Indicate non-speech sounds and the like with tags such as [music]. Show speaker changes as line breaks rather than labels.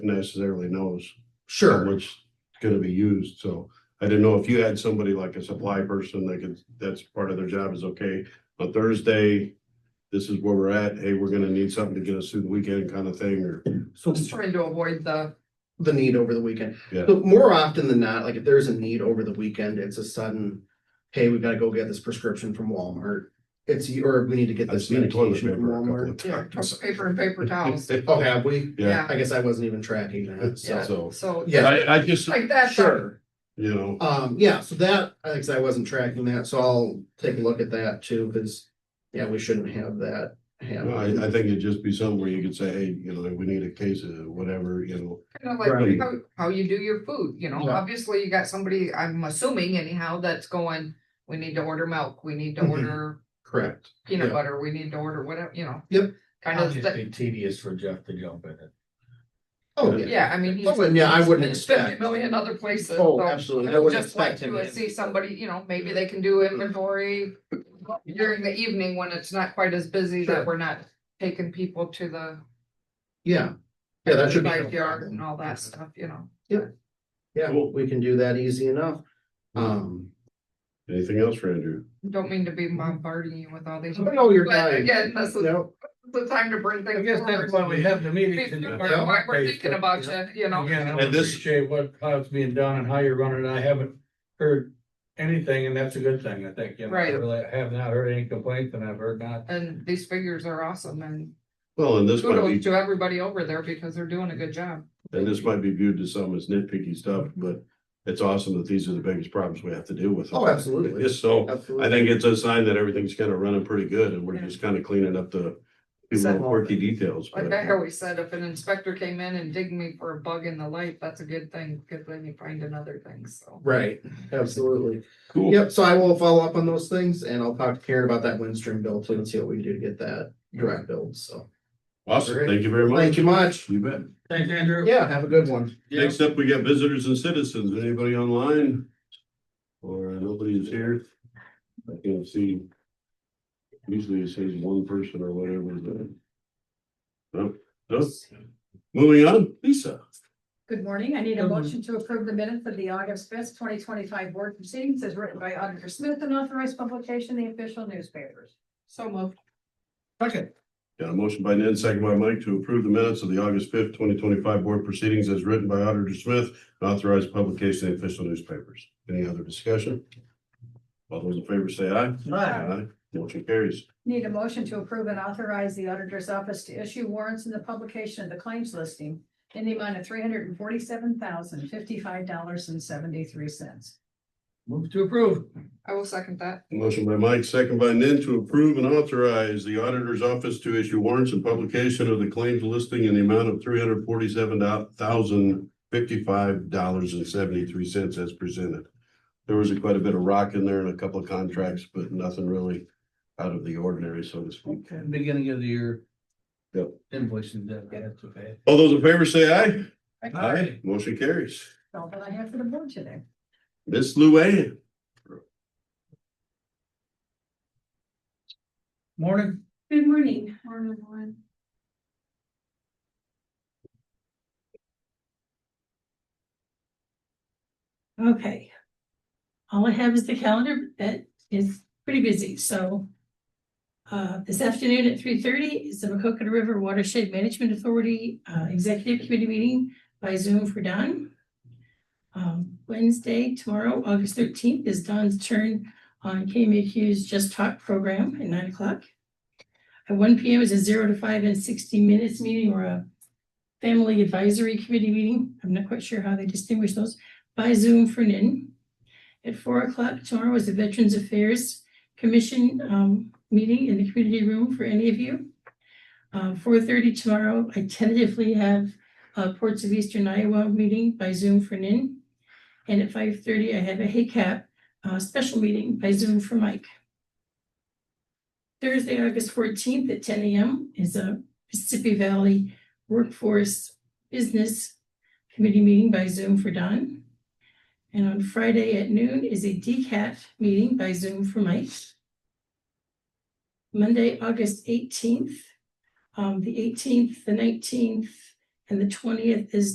necessarily knows how
Sure,
much is gonna be used, so. I didn't know if you had somebody like a supply person that could, that's part of their job is, okay, on Thursday, this is where we're at, hey, we're gonna need something to get us through the weekend kind of thing, or,
so
Just trying to avoid the,
the need over the weekend.
Yeah.
But more often than not, like if there's a need over the weekend, it's a sudden, hey, we've got to go get this prescription from Walmart. It's, or we need to get
I've
this
seen toilet
medication
paper a
from
couple
Walmart.
of
yeah,
times.
paper and paper towels.
Oh, have we?
Yeah,
I guess I wasn't even tracking
[laughs]
that, so,
Yeah.
so,
So,
Yeah.
I, I just,
like that,
sure.
you know,
Um, yeah, so that, I guess I wasn't tracking that, so I'll take a look at that too, because, yeah, we shouldn't have that
I, I
happen.
think it'd just be something where you could say, hey, you know, we need a case of whatever, you know.
kind of like
Right.
how, how you do your food, you know,
Yeah.
obviously you got somebody, I'm assuming anyhow, that's going, we need to order milk, we need to
Mhm.
order
Correct.
peanut
Yeah.
butter, we need to order whatever, you know.
Yep.
Kind
It'd
of,
just
that-
be tedious for Jeff to jump in it.
Oh, yeah.
yeah, I mean. he's-
Oh, and yeah, I
he's
wouldn't
been
expect-
Fifty million other places.
Oh,
so
absolutely.
I
I wouldn't
just like
expect him
to
to-
See somebody, you know, maybe they can do inventory during the evening when it's not quite as busy that
Sure.
we're not taking people to the.
Yeah. Yeah, that should be. no
Backyard
problem.
and all that stuff, you know.
Yeah,
Cool. Mm-hmm.
we can do that easy enough. Um,
Anything else for Andrew?
Don't mean to be bombarding you with all these.
I know you're
But
dying.
again, this is
No,
the time to bring
I
things
guess that's why
forward.
we have the meetings. and-
Before- why We're thinking about you, you know.
Again, I
And this-
appreciate what, how it's being done and how you're running. I haven't heard anything and that's a good thing, I think. you know. I
Right.
Really, I have not heard any complaints and I've heard not.
And these figures are awesome and
Well, and this might be
kudos to everybody over there because they're doing a good job.
And this might be viewed to some as nitpicky stuff, but it's awesome that these are the biggest problems we have to deal with.
Oh, absolutely.
So I
absolutely.
think it's a sign that everything's kind of running pretty good and we're just kind of cleaning up the few little quirky details.
Like
but-
I always said, if an inspector came in and digged me for a bug in the light, that's a good thing, because then you find another thing, so.
Right, absolutely.
Cool.
Yep, so I will follow up on those things and I'll talk to Karen about that Windstream bill too and see what we can do to get that direct build, so.
Awesome. Thank you very much.
Thank you much.
You bet.
Thanks, Andrew.
Yeah, have a good one.
Next up, we got visitors and citizens. Anybody online? Or nobody's here? I can see. Usually it says one person or whatever, but. No, no. Moving on, Lisa.
Good morning. I need a
Good morning.
motion to approve the minutes of the August fifth, twenty twenty-five board proceedings as written by Auditor Smith and authorized publication in the official newspapers.
So moved.
Second.
Got a motion by Ned, second by Mike to approve the minutes of the August fifth, twenty twenty-five board proceedings as written by Auditor Smith and authorized publication in official newspapers. Any other discussion? All those in favor say aye. Aye. Motion carries.
Need a motion to approve and authorize the auditor's office to issue warrants in the publication of the claims listing in the amount of three hundred and forty-seven thousand, fifty-five dollars and seventy-three cents.
Move to approve.
I will second that.
Motion by Mike, second by Nen to approve and authorize the auditor's office to issue warrants and publication of the claims listing in the amount of three hundred forty-seven thousand fifty-five dollars and seventy-three cents as presented. There was quite a bit of rock in there and a couple of contracts, but nothing really out of the ordinary, so to speak.
Beginning of the year.
Yep.
Invoicing that, that's okay.
All those in favor say aye.
Aye.
Motion carries.
All that I have for the board today.
Miss Luann.
Morning.
Good morning. Morning, Lauren. Okay. All I have is the calendar that is pretty busy, so. Uh, this afternoon at three thirty is the Macocota River Watershed Management Authority uh, Executive Committee meeting by Zoom for Don. Um, Wednesday, tomorrow, August thirteenth, is Don's turn on KMAQ's Just Talk program at nine o'clock. At one P M is a zero to five and sixty minutes meeting or a family advisory committee meeting. I'm not quite sure how they distinguish those by Zoom for NIN. At four o'clock tomorrow is the Veterans Affairs Commission um, meeting in the community room for any of you. Um, four thirty tomorrow, I tentatively have uh, Ports of Eastern Iowa meeting by Zoom for NIN. And at five thirty, I have a HACAP uh, special meeting by Zoom for Mike. Thursday, August fourteenth at ten AM is a Mississippi Valley Workforce Business Committee meeting by Zoom for Don. And on Friday at noon is a DCAT meeting by Zoom for Mike. Monday, August um, eighteenth, the eighteenth, the nineteenth, and the twentieth is